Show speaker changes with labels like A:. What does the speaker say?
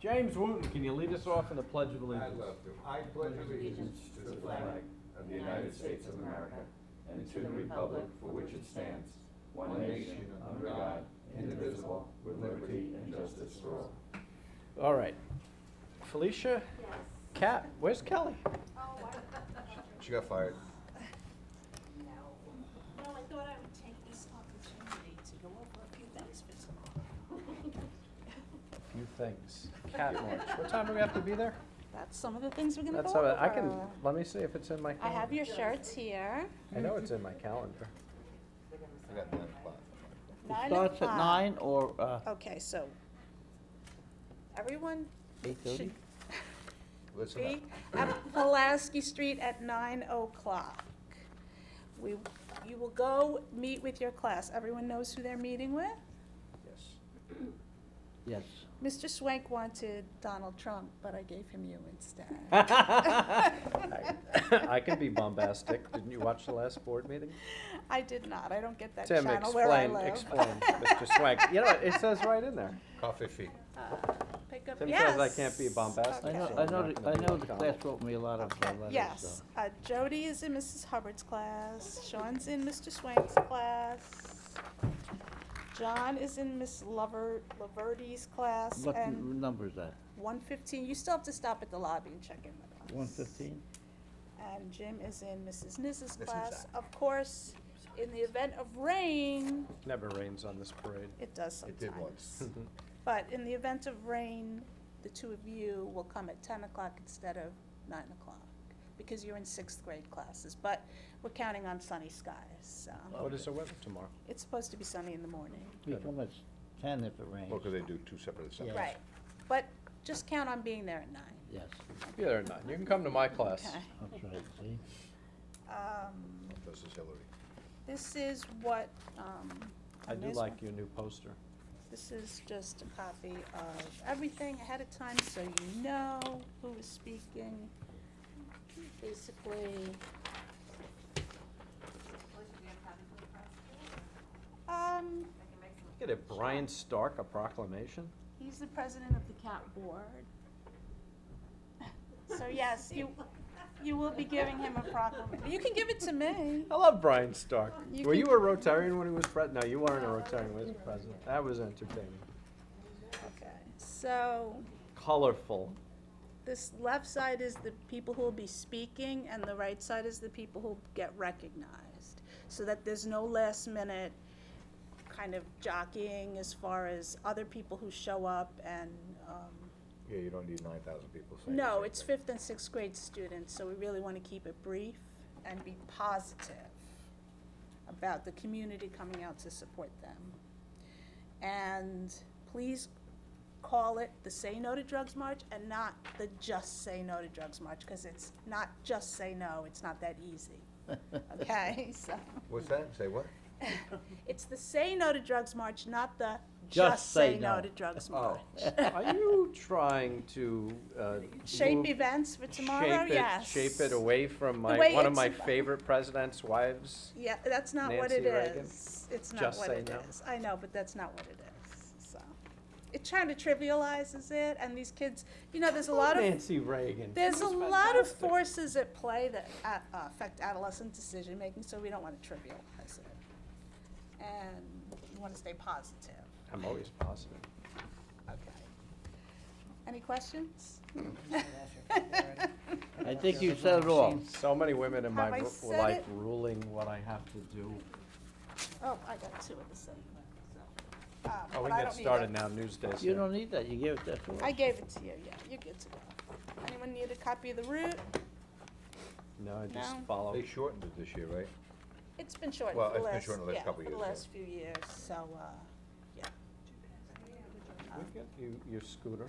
A: James Wooten, can you lead us off in the Pledge of Allegiance?
B: I'd love to. I pledge allegiance to the flag of the United States of America and to the republic for which it stands, one nation, under God, indivisible, with liberty and justice for all.
A: All right. Felicia?
C: Yes.
A: Kat, where's Kelly?
C: Oh, I,
B: She got fired.
C: no. Well, I thought I would take this opportunity to go over a few things with you.
A: Few things. Cat launch. What time do we have to be there?
C: That's some of the things we're gonna go
A: That's all
C: over.
A: right. I can, let me see if it's in my
C: I
A: calendar.
C: have your shirts here.
A: I know it's in my calendar.
B: I got nine o'clock.
C: Nine
D: It starts at
C: o'clock.
D: nine or, uh,
C: Okay, so everyone
D: eight
C: should
D: thirty?
B: Listen
C: be
B: up.
C: at Pulaski Street at nine o'clock. We, you will go meet with your class. Everyone knows who they're meeting with?
B: Yes.
D: Yes.
C: Mr. Swank wanted Donald Trump, but I gave him you instead.
A: I I can be bombastic. Didn't you watch the last board meeting?
C: I did not. I don't get that
A: Tim,
C: channel where I
A: explain,
C: live.
A: explain, Mr. Swank. You know, it says right in there.
B: Coffee feet.
C: Uh, Pick up,
A: Tim
C: yes.
A: says I can't be bombastic,
D: I know,
C: Okay.
D: I
A: I'm
D: know,
A: not
D: the- I
A: gonna be
D: know
A: on
D: the
A: time.
D: class wrote me a lot of uh,
C: Okay,
D: letters,
C: Yes,
D: so.
C: uh, Jody is in Mrs. Hubbard's class, Sean's in Mr. Swank's class, John is in Miss Lover, Laverty's class,
D: What
C: and
D: n- number is that?
C: one fifteen, you still have to stop at the lobby and check in with us.
D: One fifteen?
C: And Jim is in Mrs. Niz's
B: Mrs.
C: class.
B: Zak.
C: Of course, in the event of rain,
A: Never rains on this parade.
C: it does
B: It
C: sometimes.
B: did once.
A: Mm-hmm.
C: But in the event of rain, the two of you will come at ten o'clock instead of nine o'clock, because you're in sixth grade classes, but we're counting on sunny skies, so.
A: What is the weather tomorrow?
C: It's supposed to be sunny in the morning.
D: We come at ten if it rains.
B: Well, 'cause they do two separate
D: Yeah.
B: assemblies.
C: Right, but just count on being there at nine.
D: Yes,
A: Be there at nine. You can come to my class.
C: Okay.
D: that's right, see?
C: Um,
B: This is Hillary.
C: this is what, um.
A: I do
C: this
A: like
C: one-
A: your new poster.
C: This is just a copy of everything ahead of time, so you know who is speaking. Basically, um,
A: Get a Brian Stark a proclamation?
C: he's the president of the cat board. So yes, you, you will be giving him a proclamation. You can give it to me.
A: I love Brian Stark.
C: You
A: Were
C: can-
A: you a Rotarian when he was pres, no, you weren't a Rotarian when he was president. That was entertaining.
C: Okay, so
A: Colorful.
C: this left side is the people who will be speaking, and the right side is the people who get recognized, so that there's no last minute kind of jockeying as far as other people who show up and, um,
B: Yeah, you don't need nine thousand people saying. the
C: no,
B: same
C: it's
B: thing.
C: fifth and sixth grade students, so we really wanna keep it brief and be positive about the community coming out to support them. And please call it the Say No to Drugs March and not the Just Say No to Drugs March, cause it's not just say no, it's not that easy, okay, so.
B: What's that? Say what?
C: It's the Say No to Drugs March, not the
D: Just
C: Just Say
D: Say
C: No
D: No.
C: to Drugs
B: Oh.
C: March.
A: Are you trying to, uh?
C: Shape
A: move-
C: events for tomorrow,
A: shape it-
C: yes.
A: Shape it away from my,
C: way
A: one of
C: it's
A: my
C: ab-
A: favorite president's wives?
C: Yeah, that's not what it
A: Nancy Reagan?
C: is. It's not
A: Just
C: what
A: say
C: it
A: no.
C: is. I know, but that's not what it is, so. It kind of trivializes it, and these kids, you know, there's a lot of,
A: Nancy Reagan. She
C: there's a
A: was
C: lot of
A: fantastic.
C: forces at play that a- uh, affect adolescent decision-making, so we don't want to trivialize it. And we want to stay positive,
A: I'm always positive.
C: okay. Any questions?
D: I think you said it all.
A: So many women in my
C: Have I
A: ru-
C: said
A: life
C: it?
A: ruling what I have to do.
C: Oh, I got two of the same, so. um,
A: Oh, we
C: but
A: can
C: I
A: get
C: don't need
A: started
C: it.
A: now, Newsday.
D: You don't need that, you gave it that to us.
C: I gave it to you, yeah, you're good to go. Anyone need a copy of the route?
A: No, I just
C: No.
A: follow.
B: They shortened it this year, right?
C: It's been shortened
B: Well,
C: for the
B: it's been
C: last,
B: shortened the last
C: yeah,
B: couple
C: for the
B: years, yeah.
C: last few years, so, uh, yeah.
A: Look at you, your scooter.